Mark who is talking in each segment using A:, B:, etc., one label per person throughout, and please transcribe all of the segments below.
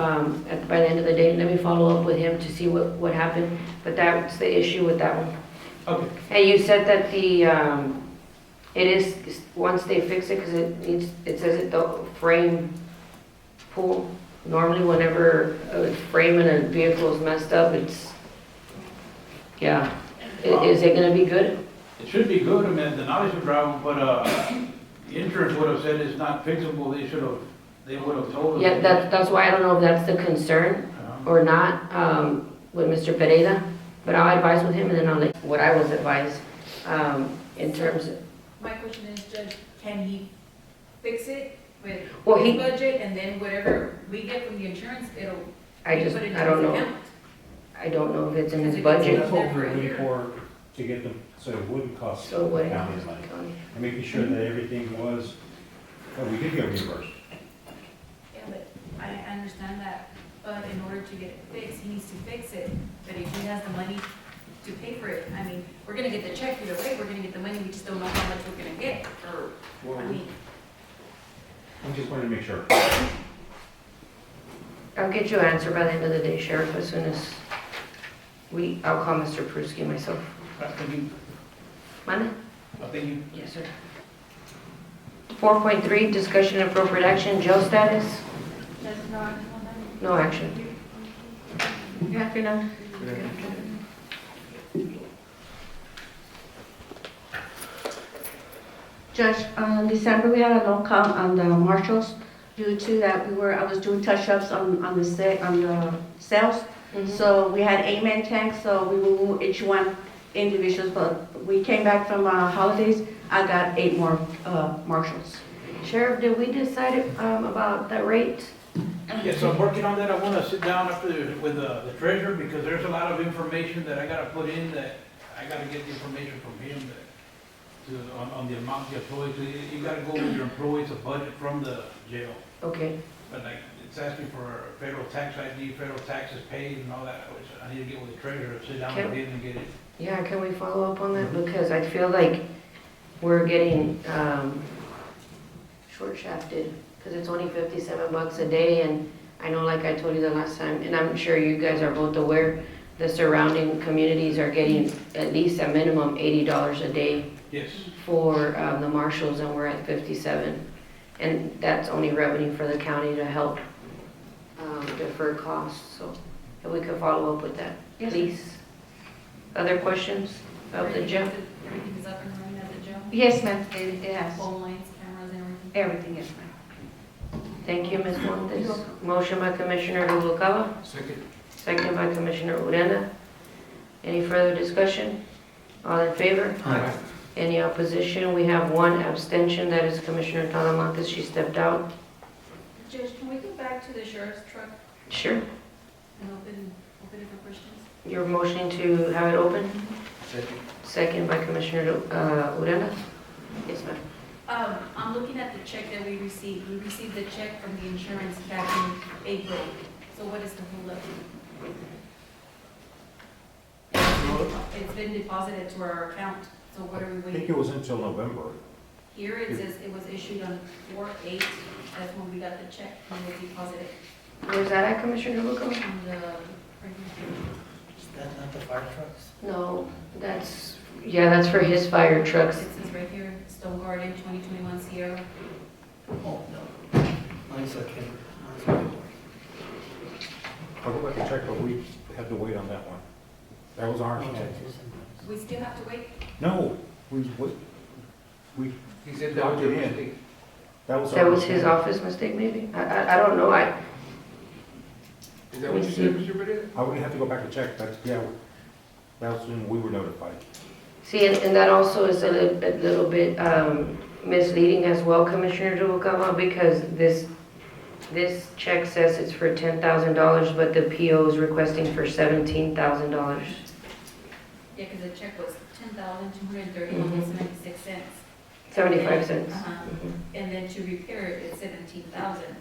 A: um, at- by the end of the day, let me follow up with him to see what, what happened, but that's the issue with that one.
B: Okay.
A: And you said that the, um, it is, once they fix it, because it needs, it says it, the frame pull, normally whenever a frame in a vehicle is messed up, it's, yeah. I- Is it gonna be good?
B: It should be good, I mean, the knowledge of driving, but, uh, the insurance would have said it's not fixable, they should have, they would have told us.
A: Yeah, that, that's why I don't know if that's the concern
B: Uh,
A: or not, um, with Mr. Pereira, but I'll advise with him and then I'll let, what I was advised, um, in terms of,
C: My question is, Judge, can he fix it with
A: Well,
C: his
A: he-
C: budget and then whatever we get from the insurance, it'll.
A: I
C: be
A: just,
C: put into
A: I don't
C: his
A: know.
C: account?
A: I don't know if it's in
C: Is
A: his
C: it-
A: budget,
D: That's what we're looking for, to get them, so it wouldn't cost the
A: so what?
D: county money. And making sure that everything was, well, we did get reimbursed.
C: Yeah, but I understand that, but in order to get it fixed, he needs to fix it, but if he has the money to pay for it, I mean, we're gonna get the check either way, we're gonna get the money, we just don't know how much we're gonna get, or, I mean,
D: I just wanted to make sure.
A: I'll get you an answer by the end of the day, Sheriff, as soon as we, I'll call Mr. Pruski myself.
B: I think you,
A: Manda?
B: I think you,
A: Yes, sir. 4.3, discussion and appropriate action, jail status,
E: There's no action on that.
A: no action.
E: Good afternoon. Judge, on December, we had a long call on the marshals due to that we were, I was doing touch-ups on, on the sa, on the cells.
A: Mm-hmm.
E: So we had eight man tanks, so we removed each one individuals, but we came back from uh, holidays, I got eight more, uh, marshals.
A: Sheriff, did we decide um, about the rate?
B: yes, I'm working on that, I wanna sit down after, with uh, the treasurer, because there's a lot of information that I gotta put in, that I gotta get the information from him, that, to, on, on the amount of the employees, So you, you gotta go with your employees, a budget from the jail.
A: Okay,
B: But like, it's asking for federal tax ID, federal taxes paid and all that, which I need to get with the treasurer, sit down with him and get it.
A: yeah, can we follow up on that? Because I feel like we're getting um, short shafted, because it's only 57 bucks a day, and I know, like I told you the last time, and I'm sure you guys are both aware, the surrounding communities are getting at least a minimum $80 a day
B: Yes,
A: for um, the marshals, and we're at 57. And that's only revenue for the county to help um, defer costs, so if we could follow up with that,
E: Yes.
A: please. Other questions about the jail?
C: Everything is up and running at the gym,
E: Yes, ma'am, it, it has,
C: phone lines, cameras, and everything.
E: everything is ma'am.
A: Thank you, Ms. Montes. Motion by Commissioner Noguera. Second. Second by Commissioner Uranda. Any further discussion? All in favor?
B: Aye.
A: Any opposition? We have one abstention, that is Commissioner Talamantes, she stepped out.
C: Judge, can we go back to the sheriff's truck
A: Sure.
C: and open, open it for questions?
A: You're motioning to have it open? Second. Second by Commissioner uh, Uranda? Yes, ma'am.
C: Um, I'm looking at the check that we received. We received the check from the insurance back in April. So what is the holdup? It's been deposited to our account, so what are we
D: I think
C: waiting?
D: it was until November.
C: Here it says it was issued on four eight, that's when we got the check, and we deposited
A: Where's that at, Commissioner Noguera?
C: it on the.
F: That's not the fire trucks?
A: No, that's, yeah, that's for his fire
C: It
A: trucks.
C: says right here, Stone Garden, twenty twenty-one Sierra.
F: Oh, no. Mine's okay. Mine's okay.
D: I'll go back and check, but we had to wait on that one. That was our
F: I'll
D: intent.
F: check this in.
C: We still have to wait?
D: No, we, we- we,
G: He said
D: That
G: Dr.
D: would be it.
G: Mistake.
D: that was.
A: That
D: our
A: was his
D: intent.
A: office mistake, maybe? I, I, I don't know, I,
G: Is that what you said, Mr. Perez?
D: I would have to go back and check, but yeah, that was when we were notified.
A: see, and, and that also is a little bit, little bit um, misleading as well, Commissioner Noguera, because this, this check says it's for ten thousand dollars, but the PO is requesting for seventeen thousand dollars.
C: Yeah, because the check was ten thousand two hundred and thirty-one dollars ninety-six cents.
A: 75 cents. Mm-hmm.
C: Uh-huh. And then to repair it, it's seventeen thousand.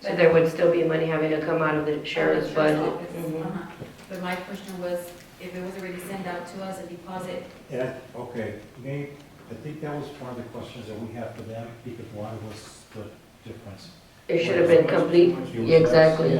A: So there would still be money having to come out of the sheriff's budget. Mhm.
C: Uh-huh. But my question was, if it was already sent out to us, a deposit,
D: Yeah, okay, Nate, I think that was one of the questions that we had for them, because why was the difference?
A: It should have been complete, exactly.